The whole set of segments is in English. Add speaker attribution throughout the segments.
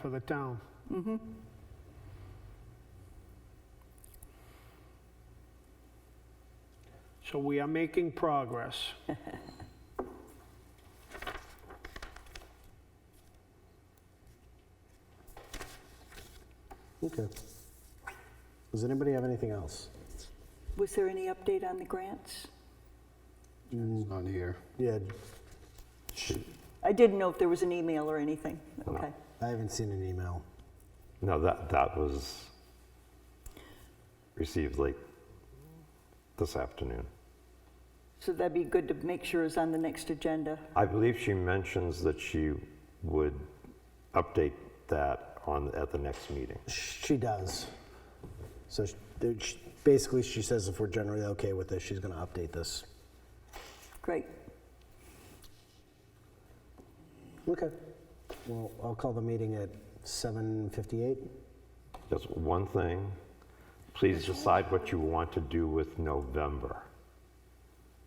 Speaker 1: for the town. So we are making progress.
Speaker 2: Okay. Does anybody have anything else?
Speaker 3: Was there any update on the grants?
Speaker 4: It's not here.
Speaker 2: Yeah, She-
Speaker 3: I didn't know if there was an email or anything. Okay.
Speaker 2: I haven't seen an email.
Speaker 5: No, that, that was received late this afternoon.
Speaker 3: So that'd be good to make sure is on the next agenda.
Speaker 5: I believe she mentions that she would update that on, at the next meeting.
Speaker 2: She does. So sh- there- sh- basically, she says if we're generally okay with this, she's going to update this.
Speaker 3: Great.
Speaker 2: Okay. Well, I'll call the meeting at 7:58.
Speaker 5: Just one thing, please decide what you want to do with November.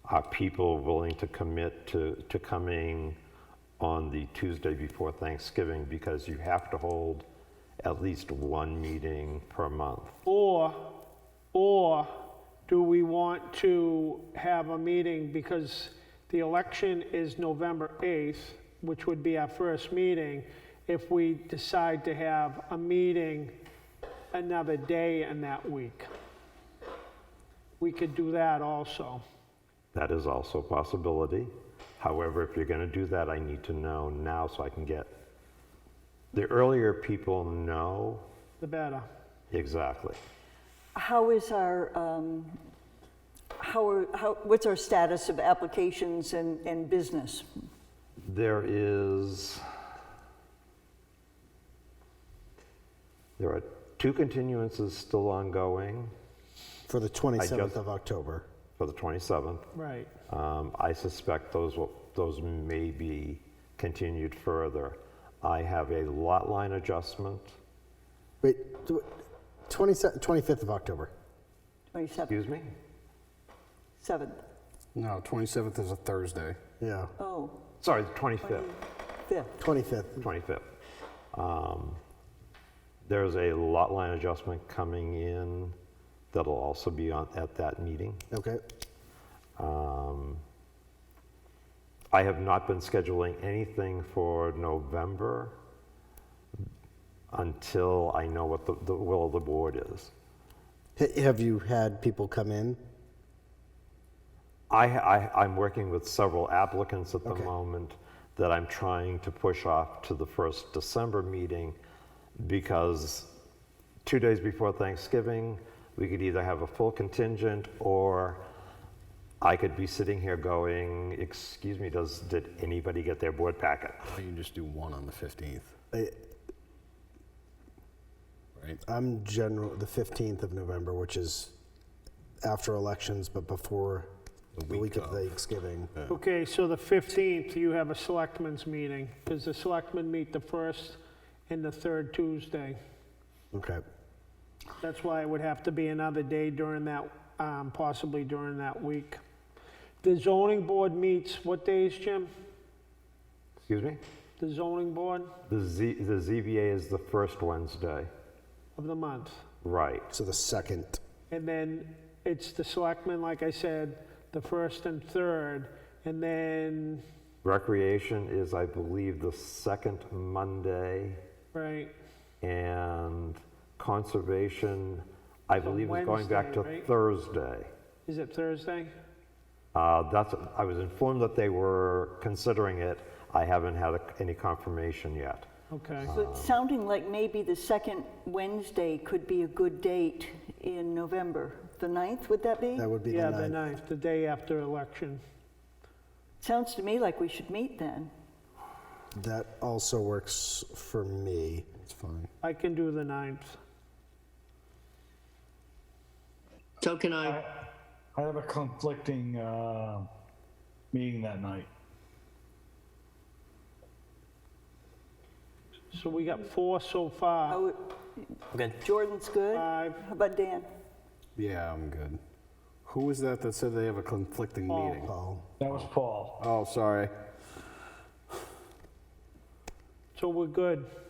Speaker 5: Are people willing to commit to, to coming on the Tuesday before Thanksgiving? Because you have to hold at least one meeting per month.
Speaker 1: Or, or do we want to have a meeting because the election is November 8th, which would be our first meeting, if we decide to have a meeting another day in that week? We could do that also.
Speaker 5: That is also a possibility. However, if you're going to do that, I need to know now so I can get, the earlier people know
Speaker 1: The better.
Speaker 5: exactly.
Speaker 3: How is our, um, how are, how, what's our status of applications and, and business?
Speaker 5: There is, there are two continuances still ongoing
Speaker 2: For the 27th of October.
Speaker 5: for the 27th.
Speaker 1: Right.
Speaker 5: Um, I suspect those will, those may be continued further. I have a lot line adjustment,
Speaker 2: Wait, tw- 27 25th of October.
Speaker 3: 27th,
Speaker 5: excuse me?
Speaker 3: 7th?
Speaker 4: No, 27th is a Thursday.
Speaker 2: Yeah,
Speaker 3: Oh,
Speaker 5: Sorry, the 25th.
Speaker 3: 5th.
Speaker 2: 25th.
Speaker 5: 25th. Um, There's a lot line adjustment coming in that'll also be on, at that meeting.
Speaker 2: Okay.
Speaker 5: Um, I have not been scheduling anything for November until I know what the, the will of the board is.
Speaker 2: H- Have you had people come in?
Speaker 5: I, I, I'm working with several applicants at the
Speaker 2: Okay.
Speaker 5: moment that I'm trying to push off to the first December meeting because two days before Thanksgiving, we could either have a full contingent or I could be sitting here going, excuse me, does, did anybody get their board packet?
Speaker 4: You can just do one on the 15th,
Speaker 2: I-
Speaker 4: right?
Speaker 2: I'm general, the 15th of November, which is after elections, but before
Speaker 4: The
Speaker 2: the
Speaker 4: week
Speaker 2: week of
Speaker 4: of.
Speaker 2: Thanksgiving.
Speaker 1: Okay, so the 15th, you have a selectmen's meeting, because the selectmen meet the first and the third Tuesday.
Speaker 2: Okay.
Speaker 1: That's why it would have to be another day during that, um, possibly during that week. The zoning board meets, what days, Jim?
Speaker 5: Excuse me?
Speaker 1: The zoning board
Speaker 5: The, Z, the ZBA is the first Wednesday.
Speaker 1: of the month.
Speaker 5: Right.
Speaker 2: So the second.
Speaker 1: And then it's the selectmen, like I said, the first and third, and then,
Speaker 5: Recreation is, I believe, the second Monday.
Speaker 1: right,
Speaker 5: and conservation, I believe is going back to
Speaker 1: Wednesday, right?
Speaker 5: Thursday.
Speaker 1: is it Thursday?
Speaker 5: Uh, That's, I was informed that they were considering it. I haven't had a- any confirmation yet.
Speaker 1: Okay.
Speaker 3: So it's sounding like maybe the second Wednesday could be a good date in November. The 9th, would that be?
Speaker 2: That would be
Speaker 1: Yeah,
Speaker 2: the
Speaker 1: the
Speaker 2: ninth.
Speaker 1: ninth, the day after election.
Speaker 3: Sounds to me like we should meet then.
Speaker 2: That also works for me.
Speaker 4: It's fine.
Speaker 1: I can do the ninth.
Speaker 6: So can I.
Speaker 7: I have a conflicting uh, meeting that night.
Speaker 1: So we got four so
Speaker 5: Uh,
Speaker 1: far.
Speaker 3: Oh, Jordan's good? How
Speaker 1: Five,
Speaker 3: about Dan?
Speaker 4: Yeah, I'm good. Who was that that said they have a conflicting meeting?
Speaker 2: Paul,
Speaker 7: That was Paul.
Speaker 4: Oh, sorry.
Speaker 1: so we're good.